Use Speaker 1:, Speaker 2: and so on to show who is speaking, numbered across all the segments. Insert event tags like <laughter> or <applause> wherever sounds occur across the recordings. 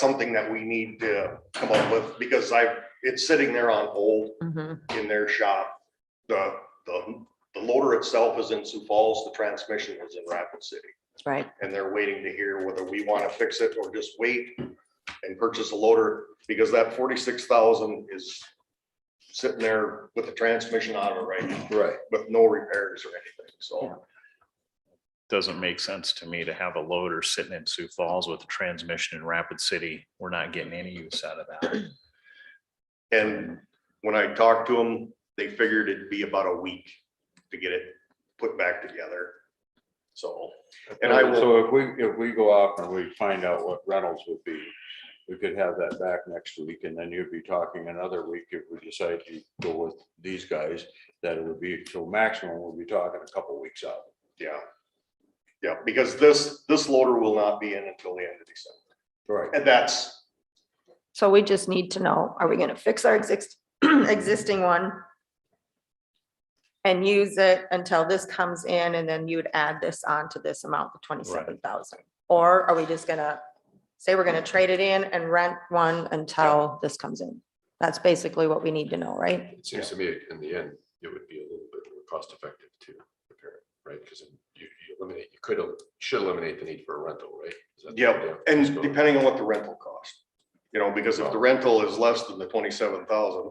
Speaker 1: something that we need to come up with, because I, it's sitting there on hold
Speaker 2: Mhm.
Speaker 1: in their shop. The, the, the loader itself is in Sioux Falls, the transmission is in Rapid City.
Speaker 2: Right,
Speaker 1: and they're waiting to hear whether we want to fix it or just wait and purchase a loader, because that forty-six thousand is sitting there with the transmission on it right now,
Speaker 3: Right.
Speaker 1: with no repairs or anything,
Speaker 2: Yeah.
Speaker 1: so.
Speaker 4: doesn't make sense to me to have a loader sitting in Sioux Falls with a transmission in Rapid City. We're not getting any use out of <clears throat> that.
Speaker 1: And when I talked to them, they figured it'd be about a week to get it put back together. So, and I will,
Speaker 3: So if we, if we go off and we find out what Reynolds would be, we could have that back next week and then you'd be talking another week if we decide to go with these guys. That it would be, so maximum, we'll be talking a couple weeks out.
Speaker 1: yeah. Yeah, because this, this loader will not be in until the end of December,
Speaker 3: Right.
Speaker 1: and that's
Speaker 2: so we just need to know, are we gonna fix our exist, <clears throat> existing one? And use it until this comes in and then you'd add this on to this amount, the twenty-seven thousand? Or are we just gonna say we're gonna trade it in and rent one until this comes in? That's basically what we need to know, right?
Speaker 5: It seems to me in the end, it would be a little bit more cost effective to repair it, right? Because you you eliminate, you could, el- should eliminate the need for a rental, right? Is that the
Speaker 1: Yep,
Speaker 5: idea? Just
Speaker 1: And
Speaker 5: go-
Speaker 1: depending on what the rental cost, you know, because if the rental is less than the twenty-seven thousand,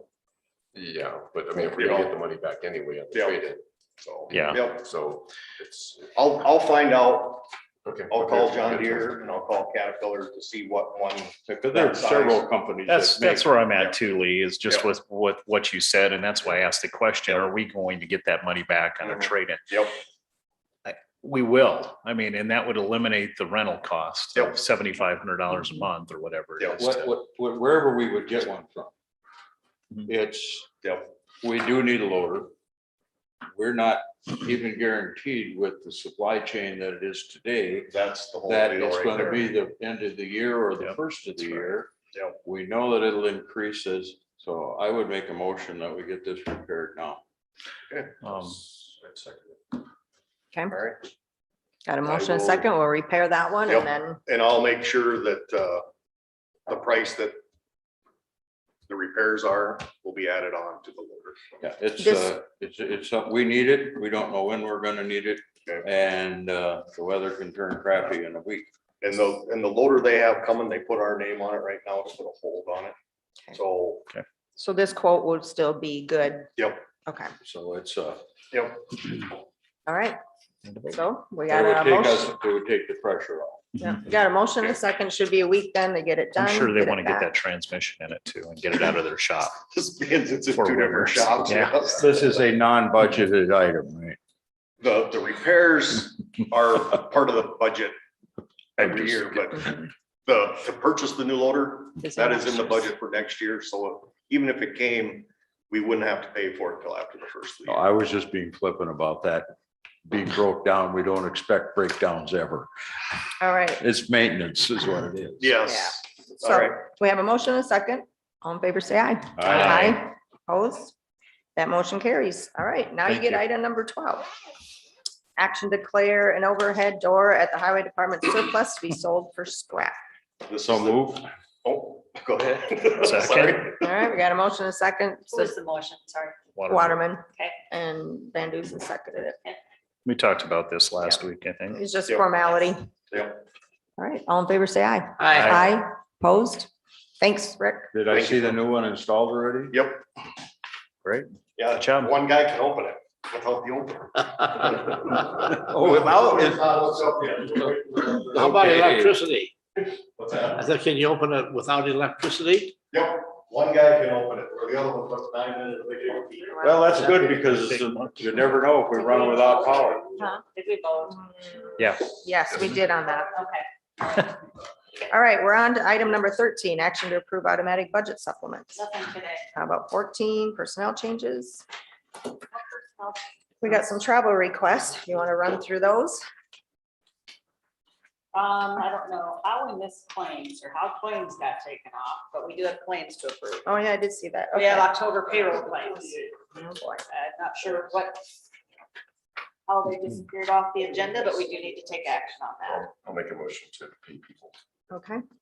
Speaker 5: Yeah, but I mean, if
Speaker 1: You
Speaker 5: we're gonna
Speaker 1: know.
Speaker 5: get the money back anyway on the
Speaker 1: Yeah.
Speaker 5: trade
Speaker 1: so.
Speaker 4: Yeah.
Speaker 1: Yep,
Speaker 5: in, so it's,
Speaker 1: I'll, I'll find out,
Speaker 5: okay.
Speaker 1: I'll call John
Speaker 5: Good.
Speaker 1: Deere and I'll call Caterpillar to see what one,
Speaker 3: Because there are several companies. that
Speaker 4: That's, that's
Speaker 3: make-
Speaker 4: where I'm at too, Lee, is just
Speaker 1: Yeah.
Speaker 4: with, with what you said, and that's why I asked the question, are we going to get that money back on a
Speaker 1: Mhm.
Speaker 4: trade-in?
Speaker 1: yep,
Speaker 4: We will. I mean, and that would eliminate the rental cost
Speaker 1: Yep.
Speaker 4: of seventy-five hundred dollars a month or whatever. it
Speaker 1: Yeah.
Speaker 4: is
Speaker 3: What,
Speaker 4: to-
Speaker 3: what, what- wherever we would get one from.
Speaker 4: Mhm.
Speaker 3: It's,
Speaker 1: yep,
Speaker 3: we do need a loader. We're not even guaranteed with the supply chain that it is today.
Speaker 1: that's the whole
Speaker 3: that
Speaker 1: deal
Speaker 3: it's
Speaker 1: right
Speaker 3: gonna be
Speaker 1: there.
Speaker 3: the end of the year or the
Speaker 4: Yep,
Speaker 3: first of the
Speaker 4: that's right.
Speaker 3: year.
Speaker 1: Yep.
Speaker 3: We know that it'll increase as, so I would make a motion that we get this repaired now.
Speaker 4: Um,
Speaker 5: I'd second it.
Speaker 2: Okay,
Speaker 1: All right,
Speaker 2: got a
Speaker 1: I
Speaker 2: motion, a
Speaker 1: will-
Speaker 2: second, we'll repair that one
Speaker 1: Yep.
Speaker 2: and then,
Speaker 1: and I'll make sure that, uh, the price that the repairs are will be added on to the loader.
Speaker 3: Yeah, it's,
Speaker 2: This-
Speaker 3: uh, it's, it's, something we need it. We don't know when we're gonna need it.
Speaker 1: Okay.
Speaker 3: And, uh, the weather can turn crappy in a week.
Speaker 1: And the, and the loader they have coming, they put our name on it right now, it's put a hold on it,
Speaker 2: Okay.
Speaker 1: so,
Speaker 2: so this quote would still be good,
Speaker 1: yep,
Speaker 2: okay,
Speaker 3: So it's, uh,
Speaker 1: yep.
Speaker 2: all right, so we
Speaker 3: it
Speaker 2: got
Speaker 3: would
Speaker 2: a
Speaker 3: take us,
Speaker 2: motion.
Speaker 3: it would take the pressure off.
Speaker 2: Yeah, we got a motion, a second, should be a week then to get it done.
Speaker 4: Mm-hmm. I'm sure they
Speaker 2: it
Speaker 4: want to get
Speaker 2: back.
Speaker 4: that transmission in it too and get it out of their shop.
Speaker 1: <laughs> This means it's in
Speaker 4: For
Speaker 1: two different
Speaker 4: winners,
Speaker 1: shops.
Speaker 4: yeah.
Speaker 1: <laughs> yes.
Speaker 3: This is a non-budgeted item, right?
Speaker 1: The, the repairs are part of the budget
Speaker 4: I'm
Speaker 1: every
Speaker 4: just-
Speaker 1: year, but
Speaker 2: Mhm.
Speaker 1: the, to purchase the new loader,
Speaker 2: This
Speaker 1: that is in the
Speaker 2: motion.
Speaker 1: budget for next year, so even if it came, we wouldn't have to pay for it till after the first of the
Speaker 3: No,
Speaker 1: year.
Speaker 3: Oh, I was just being flippant about that. Being broke down, we don't expect breakdowns ever.
Speaker 2: All right,
Speaker 3: It's maintenance is what it is.
Speaker 1: Yes, all
Speaker 2: so
Speaker 1: right,
Speaker 2: we have a motion, a second, all in favor, say aye. Aye. Opposed? That motion carries. All right, now you
Speaker 4: Thank
Speaker 2: get
Speaker 4: you.
Speaker 2: item number twelve. Action declare an overhead door at the highway department surplus to be sold for scrap.
Speaker 1: this is
Speaker 3: So
Speaker 1: the,
Speaker 3: move.
Speaker 1: oh, go
Speaker 3: <laughs>
Speaker 1: ahead.
Speaker 4: Second.
Speaker 1: Sorry.
Speaker 2: All right, we got a motion, a second,
Speaker 6: What was the motion? Sorry.
Speaker 2: Waterman.
Speaker 6: Okay.
Speaker 2: And Van Dusen seconded it.
Speaker 4: We talked about this last week, I think.
Speaker 2: It's just
Speaker 1: Yep.
Speaker 2: formality.
Speaker 1: Yep.
Speaker 2: All right, all in favor, say aye.
Speaker 4: Aye.
Speaker 2: Aye. Opposed? Thanks, Rick.
Speaker 3: Did I
Speaker 1: Thank you.
Speaker 3: see the new one installed already?
Speaker 1: Yep,
Speaker 4: Great. Good
Speaker 1: yeah,
Speaker 4: job.
Speaker 1: one guy can open it without the opener.
Speaker 3: Oh, without it.
Speaker 7: How about
Speaker 3: Okay.
Speaker 7: electricity?
Speaker 1: What's that?
Speaker 7: I said, can you open it without electricity?
Speaker 1: Yep, one guy can open it, where the other one puts nine minutes, they can't be.
Speaker 3: Well, that's good because you never know if we run without power.
Speaker 6: Huh? Did we vote?
Speaker 4: Yeah.
Speaker 2: Yes, we did on that.
Speaker 6: Okay.
Speaker 2: <laughs> All right, we're on to item number thirteen, action to approve automatic budget supplements.
Speaker 6: Nothing today.
Speaker 2: How about fourteen, personnel changes? We got some travel requests. You want to run through those?
Speaker 6: Um, I don't know how we missed claims or how claims got taken off, but we do have claims to approve.
Speaker 2: Oh, yeah, I did see that.
Speaker 6: We have
Speaker 2: Okay.
Speaker 6: October payroll claims.
Speaker 2: Oh, boy.
Speaker 6: I'm not sure what, how they disappeared off the agenda, but we do need to take action on that.
Speaker 5: I'll- I'll make a motion to pay people.
Speaker 2: Okay,